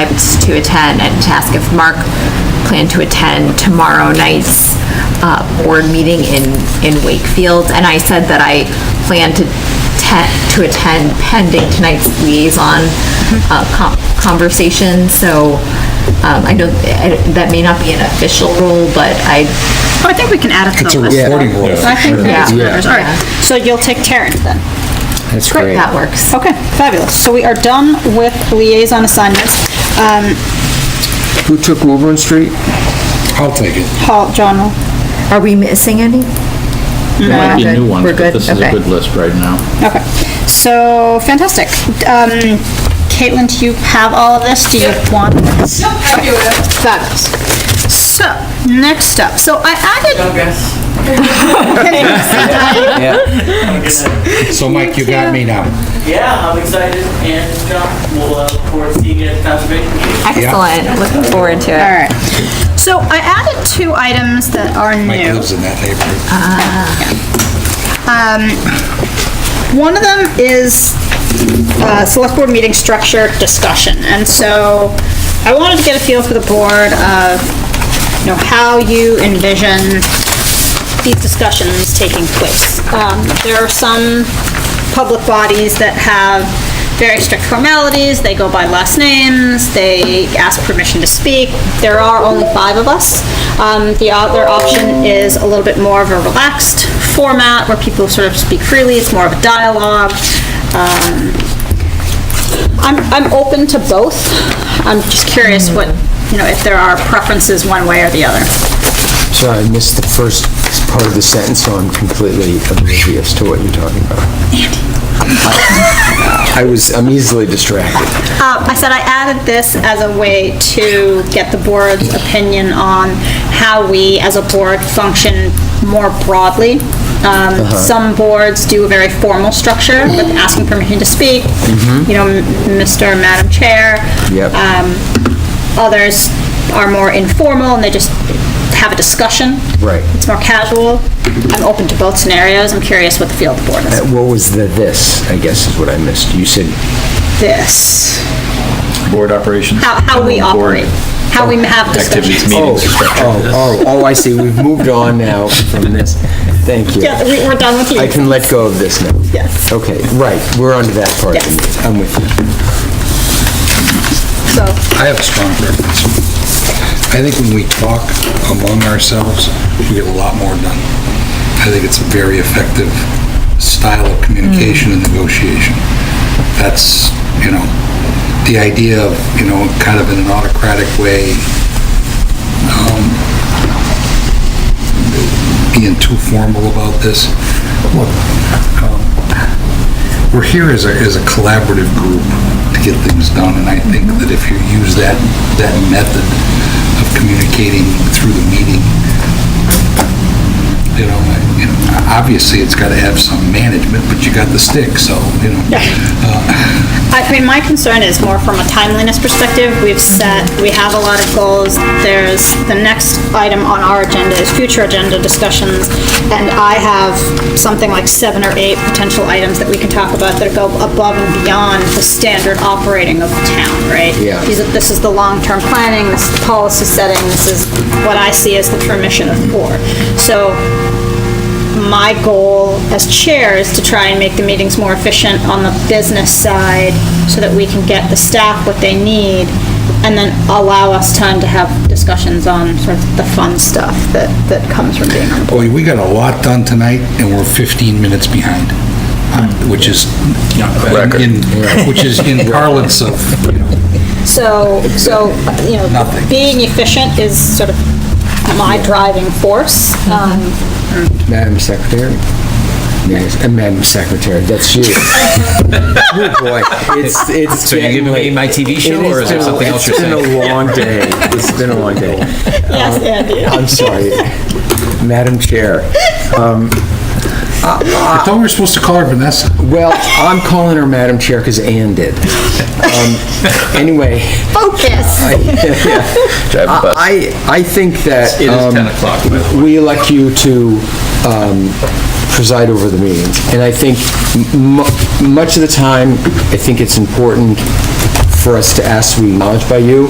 invites to attend and to ask if Mark planned to attend tomorrow night's uh, board meeting in, in Wakefield. And I said that I plan to te- to attend pending tonight's liaison uh, con- conversation. So um, I don't, I- that may not be an official rule, but I, Oh, I think we can add it to It's the a list. reporting role. So I think that's Yeah. members, all right. Yeah. So you'll take Terrence then? That's great. that works. Okay, fabulous. So we are done with liaison assignments. Um, Who took Woburn Street? I'll take it. Paul, John, will- Are we missing any? There might be We're new good. ones, We're but good. this is a Okay. good list right now. okay. So, fantastic. Um, Caitlin, do you have all of this? Do you want? this? Yep, I do it. Fabulous. So, next up, so I added, Don't guess. So Mike, you got me now. Yeah, I'm excited and uh, we'll uh, look forward to seeing you at the conservation meeting. Excellent. Looking forward to it. all right. So I added two items that are Mike new. lives in that neighborhood. One of them is uh, select board meeting structure discussion, and so I wanted to get a feel for the board of, you know, how you envision these discussions taking place. Um, There are some public bodies that have very strict formalities, they go by last names, they ask permission to speak. There are only five of us. Um, The other option is a little bit more of a relaxed format where people sort of speak freely, it's more of a dialogue. Um, I'm, I'm open to both. I'm just curious what, you know, if there are preferences one way or the other. Sorry, I missed the first part of the sentence, so I'm completely oblivious to what you're talking about. I was, I'm easily distracted. Uh, I said I added this as a way to get the board's opinion on how we, as a board, function more broadly. Um, Uh-huh. Some boards do a very formal structure with asking permission to speak, you know, m- Mr. and Madam Chair. Mm-hmm. Yep. Um, Others are more informal, and they just have a discussion. Right. It's more casual. I'm open to both scenarios. I'm curious what the feel of the board is. Uh, What was the "this," I guess is what I missed. You said, This, Board operations. how how we board operate, how we have discussions. Activities, meetings, et cetera. oh, oh, oh, I see, we've moved on now from this. Thank you. Yeah, we- we're done with you. I can let go of this now. Yes. Okay, right, we're on to that part. of the Yes. meeting. I'm with you. So, I have a strong preference. I think when we talk among ourselves, we get a lot more done. I think it's a very effective style of communication and negotiation. That's, you know, the idea of, you know, kind of in an autocratic way, um, being too formal about this. Look, um, we're here as a, as a collaborative group to get things done, and I think that if you use that, that method of communicating through the meeting, you know, I- you know, obviously, it's got to have some management, but you got the stick, so, you know. uh, I mean, my concern is more from a timeliness perspective. We've set, we have a lot of goals. There's, the next item on our agenda is future agenda discussions, and I have something like seven or eight potential items that we can talk about that go above and beyond the standard operating of the town, right? Yeah. These are- This is the long-term planning, this is the policy setting, this is what I see as the permission of the board. So my goal as chair is to try and make the meetings more efficient on the business side so that we can get the staff what they need and then allow us time to have discussions on sort of the fun stuff that, that comes from being on board. Boy, we got a lot done tonight, and we're 15 minutes behind, uh, which is, in- which is in parlance of, you know, So, so, you know, Nothing. being efficient is sort of my driving force. Um, Madam Secretary? Yes, and Madam Secretary, that's you. Oh, boy. It's, it's. So you giving me my TV show, or is there something else you're It's been a long day. It's been a long day. Yes, Andy. I'm sorry. Madam Chair. I thought we were supposed to call her Vanessa. Well, I'm calling her Madam Chair because Ann did. Um, Anyway, Focus. Drive a bus. I, I think that. It is Uh, um, 10 o'clock, by the way. we elect you to um, preside over the meetings. And I think m- mu- much of the time, I think it's important for us to ask to be acknowledged by you,